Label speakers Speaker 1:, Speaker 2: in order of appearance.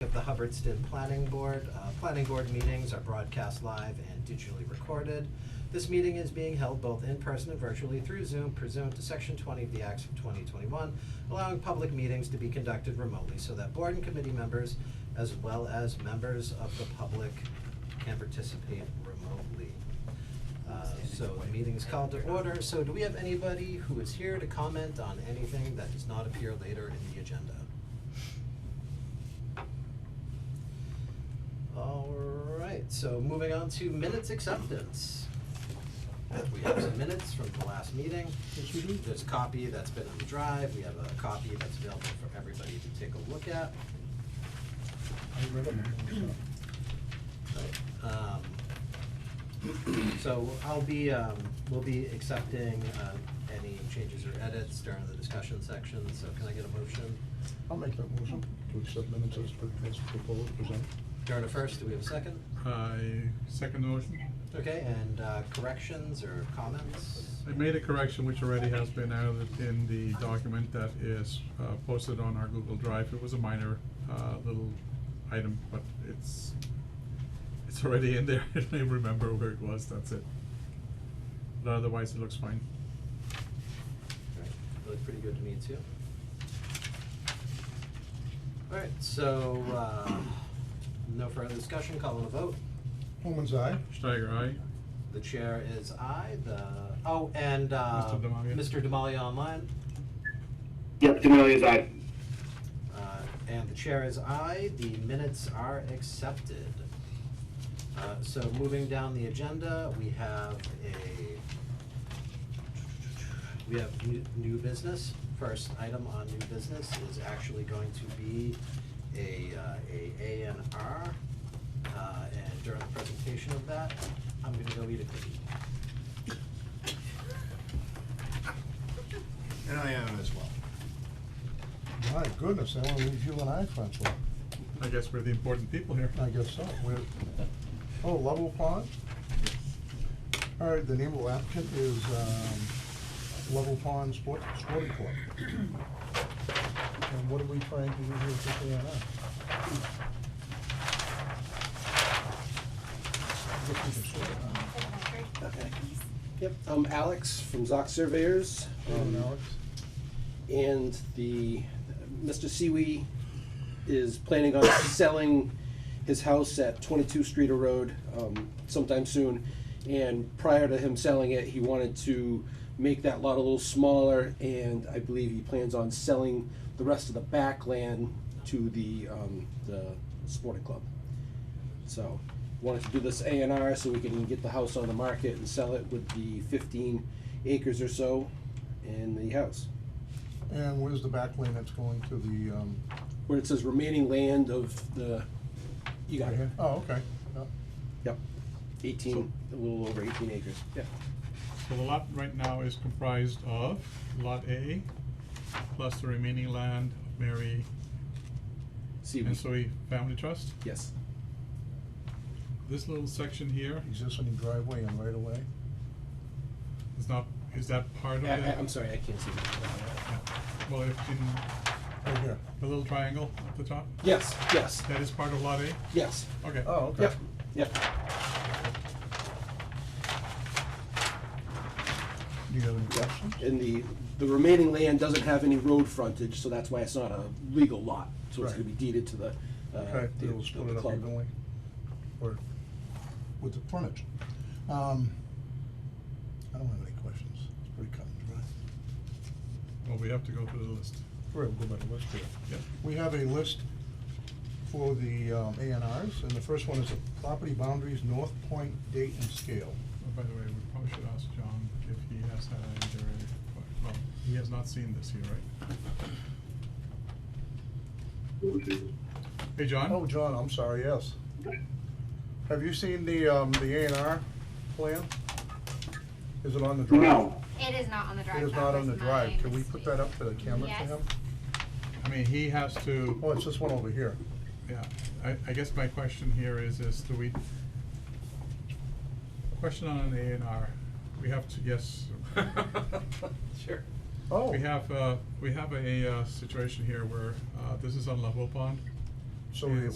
Speaker 1: Hubbardston Planning Board. Uh, planning board meetings are broadcast live and digitally recorded. This meeting is being held both in person and virtually through Zoom pursuant to section twenty of the Acts of twenty twenty-one, allowing public meetings to be conducted remotely so that board and committee members, as well as members of the public, can participate remotely. Uh, so the meeting is called to order, so do we have anybody who is here to comment on anything that does not appear later in the agenda? Alright, so moving on to minutes acceptance. We have some minutes from the last meeting. There's a copy that's been on the drive, we have a copy that's available for everybody to take a look at. Right, um, So I'll be, um, we'll be accepting, uh, any changes or edits during the discussion section, so can I get a motion?
Speaker 2: I'll make that motion to accept minutes as pre- as proposed, presented.
Speaker 1: During a first, do we have a second?
Speaker 3: I second the motion.
Speaker 1: Okay, and, uh, corrections or comments?
Speaker 3: I made a correction which already has been added in the document that is uh, posted on our Google Drive. It was a minor uh, little item, but it's, it's already in there. I don't remember where it was, that's it. But otherwise, it looks fine.
Speaker 1: Alright, Looked pretty good to me too. Alright, so, uh, no further discussion, calling a vote.
Speaker 2: Holman's eye?
Speaker 3: Steiger, aye?
Speaker 1: The chair is I, the, oh, and, uh,
Speaker 3: Mr. Damali.
Speaker 1: Mr. Demalia online.
Speaker 4: Yep, D'Amelia's aye.
Speaker 1: Uh, and the chair is I, the minutes are accepted. Uh, so moving down the agenda, we have a, we have new, new business. First item on new business is actually going to be a, uh, a A and R. Uh, and during the presentation of that, I'm gonna go eat a cookie.
Speaker 5: And I am as well.
Speaker 2: My goodness, I only leave you and I, Francois.
Speaker 3: I guess we're the important people here.
Speaker 2: I guess so. We're, oh, Level Pond? All right, the name of the applicant is, um, Level Pond Sport, Sporting Club. And what are we trying to do here with the A and R? Just need to sort it out.
Speaker 6: Okay.
Speaker 7: Yep, I'm Alex from Zoc Surveyors.
Speaker 2: Um,
Speaker 7: um,
Speaker 2: Alex?
Speaker 7: And the, Mr. Siwi is planning on selling his house at twenty-two Streeter Road, um, sometime soon. And prior to him selling it, he wanted to make that lot a little smaller, and I believe he plans on selling the rest of the back land to the, um, the sporting club. So, wanted to do this A and R so we can get the house on the market and sell it with the fifteen acres or so in the house.
Speaker 2: And where's the back lane that's going to the, um,
Speaker 7: Where it says remaining land of the, you got
Speaker 2: right
Speaker 7: it,
Speaker 2: here? Oh, okay. Yeah.
Speaker 7: yep, eighteen, a little over eighteen acres, yeah.
Speaker 3: So the lot right now is comprised of Lot A plus the remaining land of Mary
Speaker 7: See, we-
Speaker 3: Ensoi Family Trust.
Speaker 7: yes,
Speaker 3: This little section here
Speaker 2: Existing driveway and right away.
Speaker 3: is not, is that part of
Speaker 7: I,
Speaker 3: it?
Speaker 7: I, am sorry, I can't see.
Speaker 3: Yeah. Well, if in
Speaker 2: Right here.
Speaker 3: the little triangle at the top,
Speaker 7: Yes, yes,
Speaker 3: that is part of lot A?
Speaker 7: yes,
Speaker 3: Okay.
Speaker 2: Oh, okay.
Speaker 7: yep, yep,
Speaker 2: Do you have any questions?
Speaker 7: and the, the remaining land doesn't have any road frontage, so that's why it's not a legal lot, so it's
Speaker 2: Right.
Speaker 7: gonna be deeded to the, uh,
Speaker 2: Okay,
Speaker 7: the,
Speaker 2: it'll split
Speaker 7: the
Speaker 2: it up
Speaker 7: club.
Speaker 2: evenly, or with the frontage. Um, I don't have any questions, it's pretty cut and dry.
Speaker 3: Well, we have to go through the list.
Speaker 2: All right, we'll go by the list here.
Speaker 3: Yep.
Speaker 2: We have a list for the um, A and Rs, and the first one is property boundaries, North Point, date and scale.
Speaker 3: Oh, By the way, we probably should ask John if he has had either, well, he has not seen this here, right? Hey, John?
Speaker 2: Oh, John, I'm sorry, yes. Have you seen the, um, the A and R plan? Is it on the drive?
Speaker 4: No.
Speaker 6: It is not on the drive.
Speaker 2: It is
Speaker 6: That
Speaker 2: not on
Speaker 6: was
Speaker 2: the drive,
Speaker 6: my
Speaker 2: can we put
Speaker 6: mistake.
Speaker 2: that up to the camera for
Speaker 6: Yes.
Speaker 2: him?
Speaker 3: I mean, he has to.
Speaker 2: Oh, it's this one over here.
Speaker 3: Yeah, I, I guess my question here is, is do we, question on an A and R, we have to, yes.
Speaker 1: Sure.
Speaker 2: Oh.
Speaker 3: We have, uh, we have a, uh, situation here where, uh, this is on level pond.
Speaker 2: So we-